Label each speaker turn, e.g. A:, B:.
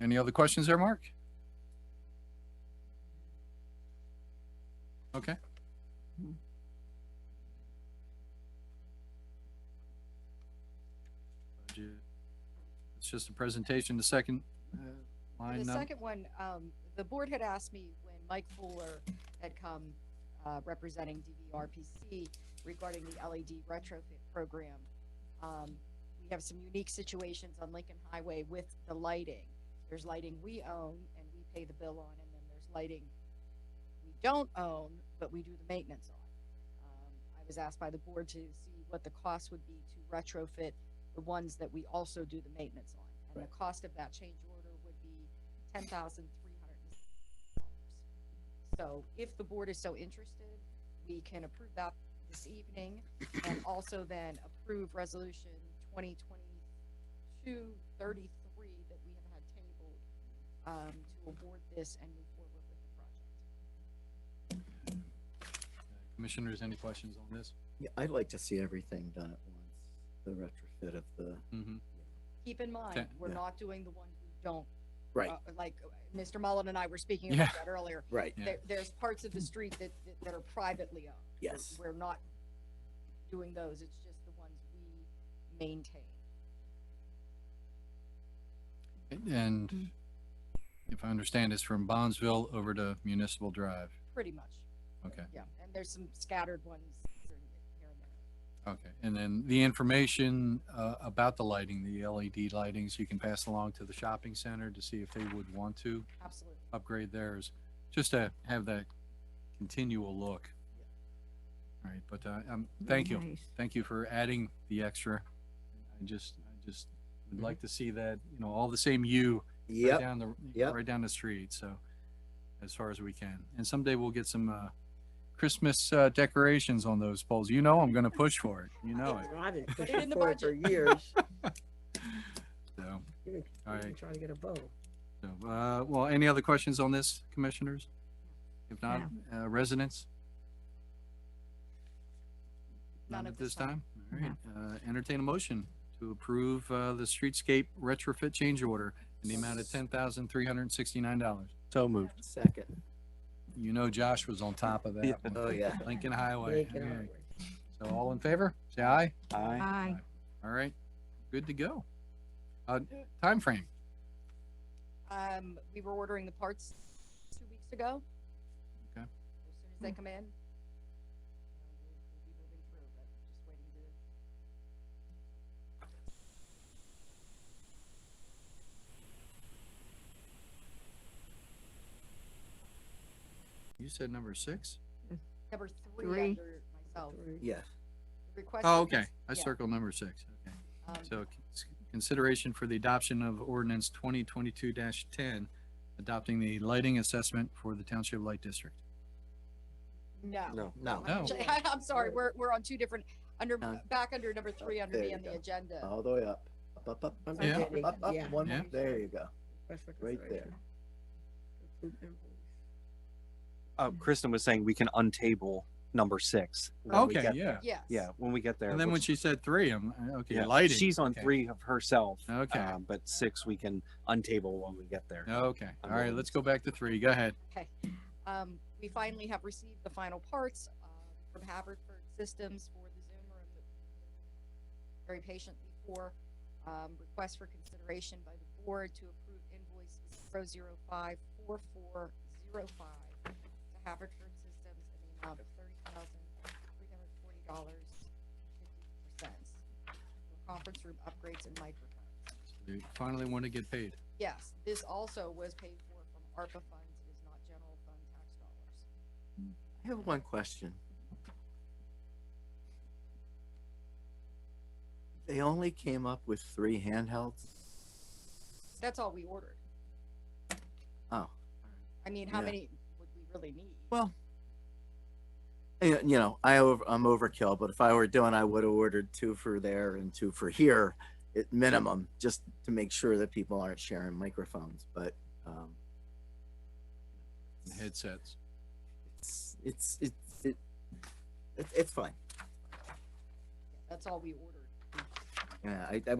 A: Any other questions there, Mark? Okay. Budget. It's just a presentation, the second uh,
B: The
A: line. up.
B: second one, um, the board had asked me when Mike Fuller had come, uh, representing DVRPC regarding the LED retrofit program. Um, we have some unique situations on Lincoln Highway with the lighting. There's lighting we own and we pay the bill on, and then there's lighting we don't own, but we do the maintenance on. Um, I was asked by the board to see what the cost would be to retrofit the ones that we also do the maintenance on. And the cost of that change order would be ten thousand three hundred and sixty dollars. So if the board is so interested, we can approve that this evening and also then approve resolution twenty twenty-two thirty-three that we have had tabled um, to award this and move forward with the project.
A: Commissioners, any questions on this?
C: Yeah, I'd like to see everything done at once, the retrofit of the.
A: Mhm.
B: Keep in mind,
A: Okay.
B: we're
C: Yeah.
B: not doing the ones we don't.
C: Right.
B: uh, Like, uh, Mr. Mullen and I were speaking
A: Yeah.
B: about that earlier.
C: Right.
A: Yeah.
B: There, there's parts of the street that, that- that are privately owned. We're-
C: Yes.
B: We're not doing those, it's just the ones we maintain.
A: And if I understand, it's from Bondsville over to Municipal Drive.
B: Pretty much,
A: Okay,
B: yeah. And there's some scattered ones here and there. here and there.
A: okay. And then the information uh, about the lighting, the LED lightings, you can pass along to the shopping center to see if they would want to
B: Absolutely.
A: upgrade theirs, just to have that continual look. All right, but uh, um, thank you. Thank you for adding the extra. I just, I just would
C: Mhm.
A: like to see that, you know, all the same you right
C: Yep,
A: down the,
C: yep.
A: right down the street, so as far as we can. And someday we'll get some, uh, Christmas, uh, decorations on those poles. You know, I'm gonna push for it. You know it.
D: I've been
B: it in
D: pushing
B: the
D: for it for years.
A: So,
D: Even
A: All right.
D: even trying to get a bow.
A: so, uh, well, any other questions on this, commissioners? If not, uh, residents? None at this time? All right, uh, entertain a motion to approve, uh, the streetscape retrofit change order in the amount of ten thousand, three hundred and sixty-nine dollars.
E: So moved.
C: second.
A: You know Josh was on top of that one.
C: Oh, yeah.
A: Lincoln Highway.
D: Make it
A: okay.
D: onward.
A: So all in favor, say aye.
E: Aye.
F: Aye.
A: All right, good to go. Uh, timeframe,
B: Um, we were ordering the parts two weeks ago.
A: Okay.
B: As soon as they come in. uh, we'll- we'll be moving through, but just waiting to-
A: you said number six?
B: Number three
F: Three.
B: under myself.
D: Three.
C: Yeah,
B: Request
A: Oh,
B: for
A: okay,
B: cons-
A: I
B: yeah,
A: circled number six, okay.
B: um,
A: So c- consideration for the adoption of ordinance twenty twenty-two ten, adopting the lighting assessment for the Township Light District.
B: No.
C: no, no.
D: Oh.
A: No.
B: Actually, I'm sorry, we're, we're on two different, under,
C: No.
B: back under number three under
C: there
B: me
C: you
B: on the
C: go. Oh.
B: agenda.
C: All the way up, up, up, up,
D: I'm
C: up,
A: Yeah.
D: beginning,
C: up,
D: yeah.
C: up, one,
A: Yeah.
C: more. there you go.
D: Request for
C: Right
D: consideration. Approve invoice.
A: Mm-hmm.
E: Uh, Kristen was saying we can untable number six. when we
A: Okay,
E: get-
A: yeah.
B: Yes.
E: Yeah, when we get there.
A: And then when
E: which-
A: she said three, I'm, uh, okay,
E: yeah,
A: lighting.
E: She's on
A: okay.
E: three of herself.
A: Okay.
E: uh, But six, we can untable when we get there.
A: Okay, all right, let's go back to three, go ahead.
B: Um, we finally have received the final parts, uh, from Haverford Systems for the Zoom room that we very patiently for, um, request for consideration by the board to approve invoice zero zero five four four zero five to Haverford Systems in the amount of thirty thousand three hundred forty dollars fifty cents for conference room upgrades and microphones.
A: We Finally want to get paid.
B: Yes, this also was paid for from ARPA funds, it is not general fund tax dollars.
C: I have one question. They only came up with three handhelds?
B: That's all we ordered.
C: Oh,
B: I mean, how
C: Yeah.
B: many would we really need?
C: well. eh, You know, I over, I'm overkill, but if I were doing, I would have ordered two for there and two for here at minimum, just to make sure that people aren't sharing microphones, but, um,
A: Headsets.
C: it's, it's, it's, it, it- it's fine.
B: That's all we ordered.
C: Yeah, I, I